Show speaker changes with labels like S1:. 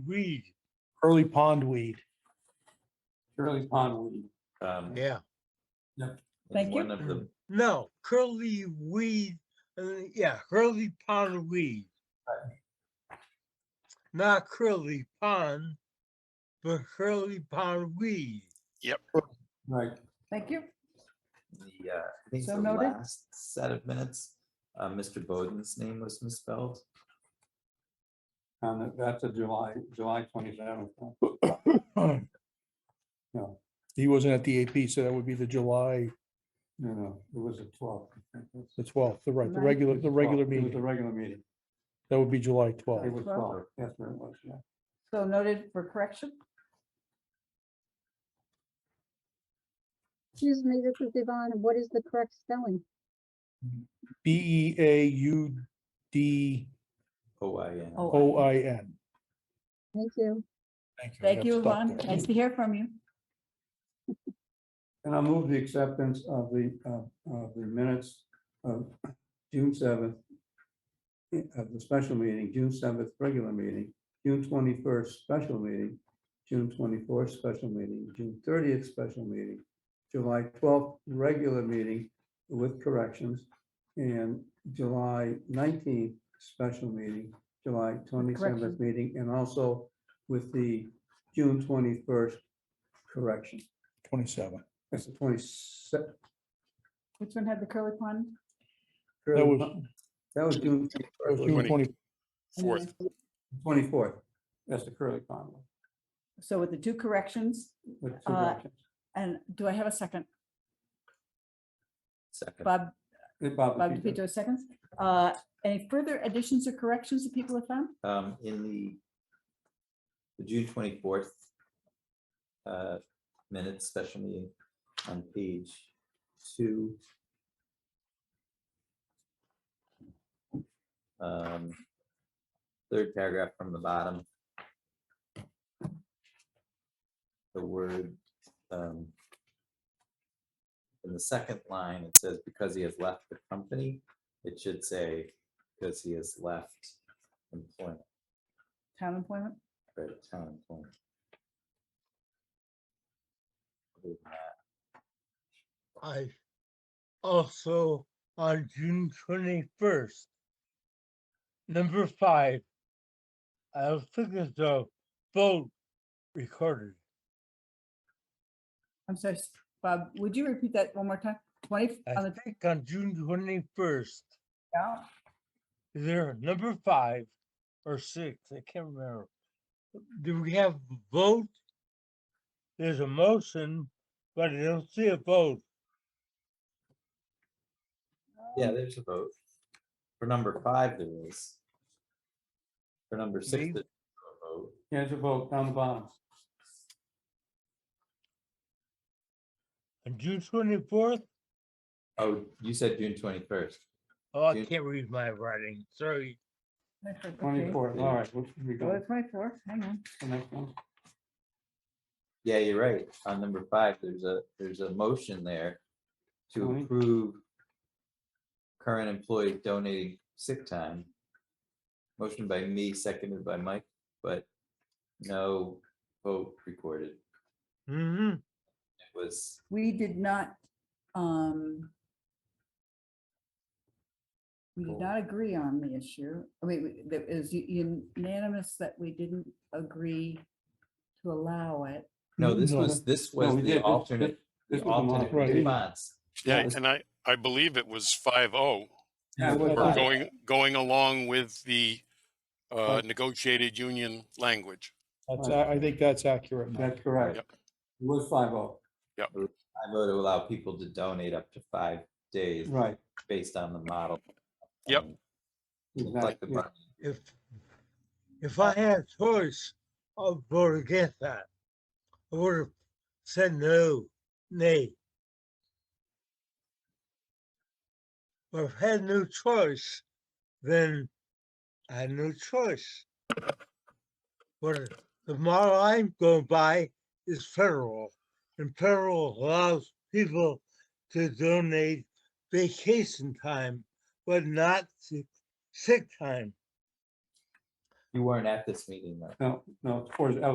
S1: weed, early pond weed.
S2: Curly pond weed.
S3: Um,
S4: Yeah,
S3: it's
S5: Thank you.
S3: One of the,
S1: No, curly weed, uh, yeah, curly pond weed. Not curly pond, but curly pond weed.
S2: Right.
S5: Thank you.
S3: the, uh, I think
S5: So
S3: the
S5: noted.
S3: last set of minutes, uh, Mr. Bowden's name was misspelled.
S2: And that's a July, July twenty-seventh. No,
S1: He wasn't at the AP, so that would be the July,
S2: no, no, it was a twelve. I think. It
S1: the twelfth, the right, the
S5: Right.
S1: regular, the
S2: was
S1: regular
S2: 12. It was The
S1: meeting.
S2: regular meeting.
S1: That would be July
S2: It
S1: twelfth.
S2: was
S5: 12.
S2: twelve. That's where it was, yeah.
S5: So noted for correction.
S6: Excuse me, this is Yvonne. What is the correct spelling?
S1: B E A U D
S3: O I N.
S5: Oh,
S1: O I N.
S6: Thank you.
S1: Thank you. I
S5: Thank
S1: got
S5: you,
S1: stuck
S5: Yvonne.
S1: there.
S5: Nice to hear from you.
S2: And I'll move the acceptance of the, of of the minutes of June seventh, of the special meeting, June seventh, regular meeting, June twenty-first, special meeting, June twenty-fourth, special meeting, June thirtieth, special meeting, July twelfth, regular meeting with corrections, and July nineteenth, special meeting, July twenty-seventh
S5: corrections.
S2: meeting, and also with the June twenty-first correction.
S1: Twenty-seven.
S2: That's the twenty-seven.
S5: Which one had the curly pond?
S1: That was,
S2: That was June
S1: that was June
S7: Twenty.
S1: twenty,
S5: And
S7: Fourth.
S5: then-
S2: twenty-fourth. That's the Curly Pond one.
S5: So with the two corrections,
S2: with two
S5: Uh,
S2: corrections.
S5: and do I have a second?
S3: Second.
S5: Bob,
S2: Hey, Bob,
S5: Bob
S2: if you could-
S5: DePietro seconds. Uh, Any further additions or corrections that people have found?
S3: Um, in the the June twenty-fourth uh, minutes special meeting on page two. Um, third paragraph from the bottom. The word, um, in the second line, it says because he has left the company, it should say because he has left employment
S5: Town employment?
S3: right at town and home. Other than that,
S1: I also on June twenty-first. Number five. I was thinking the vote recorded.
S5: I'm sorry, s- Bob, would you repeat that one more time? 20 on
S1: I
S5: the,
S1: think on June twenty-first,
S5: yeah,
S1: either number five or six, I can't remember. Do we have a vote? There's a motion, but I don't see a vote.
S3: Yeah, there's a vote. For number five, there is. For number six,
S1: Maybe-
S3: there's no vote.
S2: Yeah, it's a vote down the bottom.
S1: On June twenty-fourth,
S3: Oh, you said June twenty-first.
S1: oh, I
S3: June-
S1: can't read my writing, sorry.
S5: that's right, okay.
S2: Twenty-fourth, all right. we- we
S5: Go to
S2: got
S5: 24th, Oh, hang on.
S2: the next one.
S3: Yeah, you're right. On number five, there's a, there's a motion there to
S2: Mhm.
S3: approve current employee donating sick time. Motion by me, seconded by Mike, but no vote recorded. It
S1: Mm-hmm.
S3: was
S5: We did not, um, we did
S3: Cool.
S5: not agree on the issue. I mean, it was unanimous that we didn't agree to allow it.
S3: No,
S2: Mm-hmm.
S3: this
S1: No,
S3: was, this
S2: we
S3: was
S2: did. This-
S3: the
S2: this-
S3: alternate,
S2: this
S3: the
S2: was the
S3: alternate
S1: right.
S3: response.
S7: Yeah,
S3: was-
S7: and I, I believe it was five oh,
S2: Yeah, it was
S3: Right.
S2: five. oh.
S7: going, going along with the uh, negotiated union language.
S1: That's, I I think that's accurate. Mike.
S2: That's correct.
S7: Yep.
S2: It was five oh,
S3: I vote to allow people to donate up to five days
S2: right.
S3: based on the model.
S7: Yep.
S3: um, like
S2: Exactly.
S3: the
S2: yeah.
S3: bun-
S1: if if I had a choice, I'd vote against that. I would have said no, nay. But if I had no choice, then I had no choice. But the model I'm going by is federal, and federal allows people to donate vacation time, but not sick sick time.
S3: You weren't at this meeting, though.
S2: No, oh. no, towards,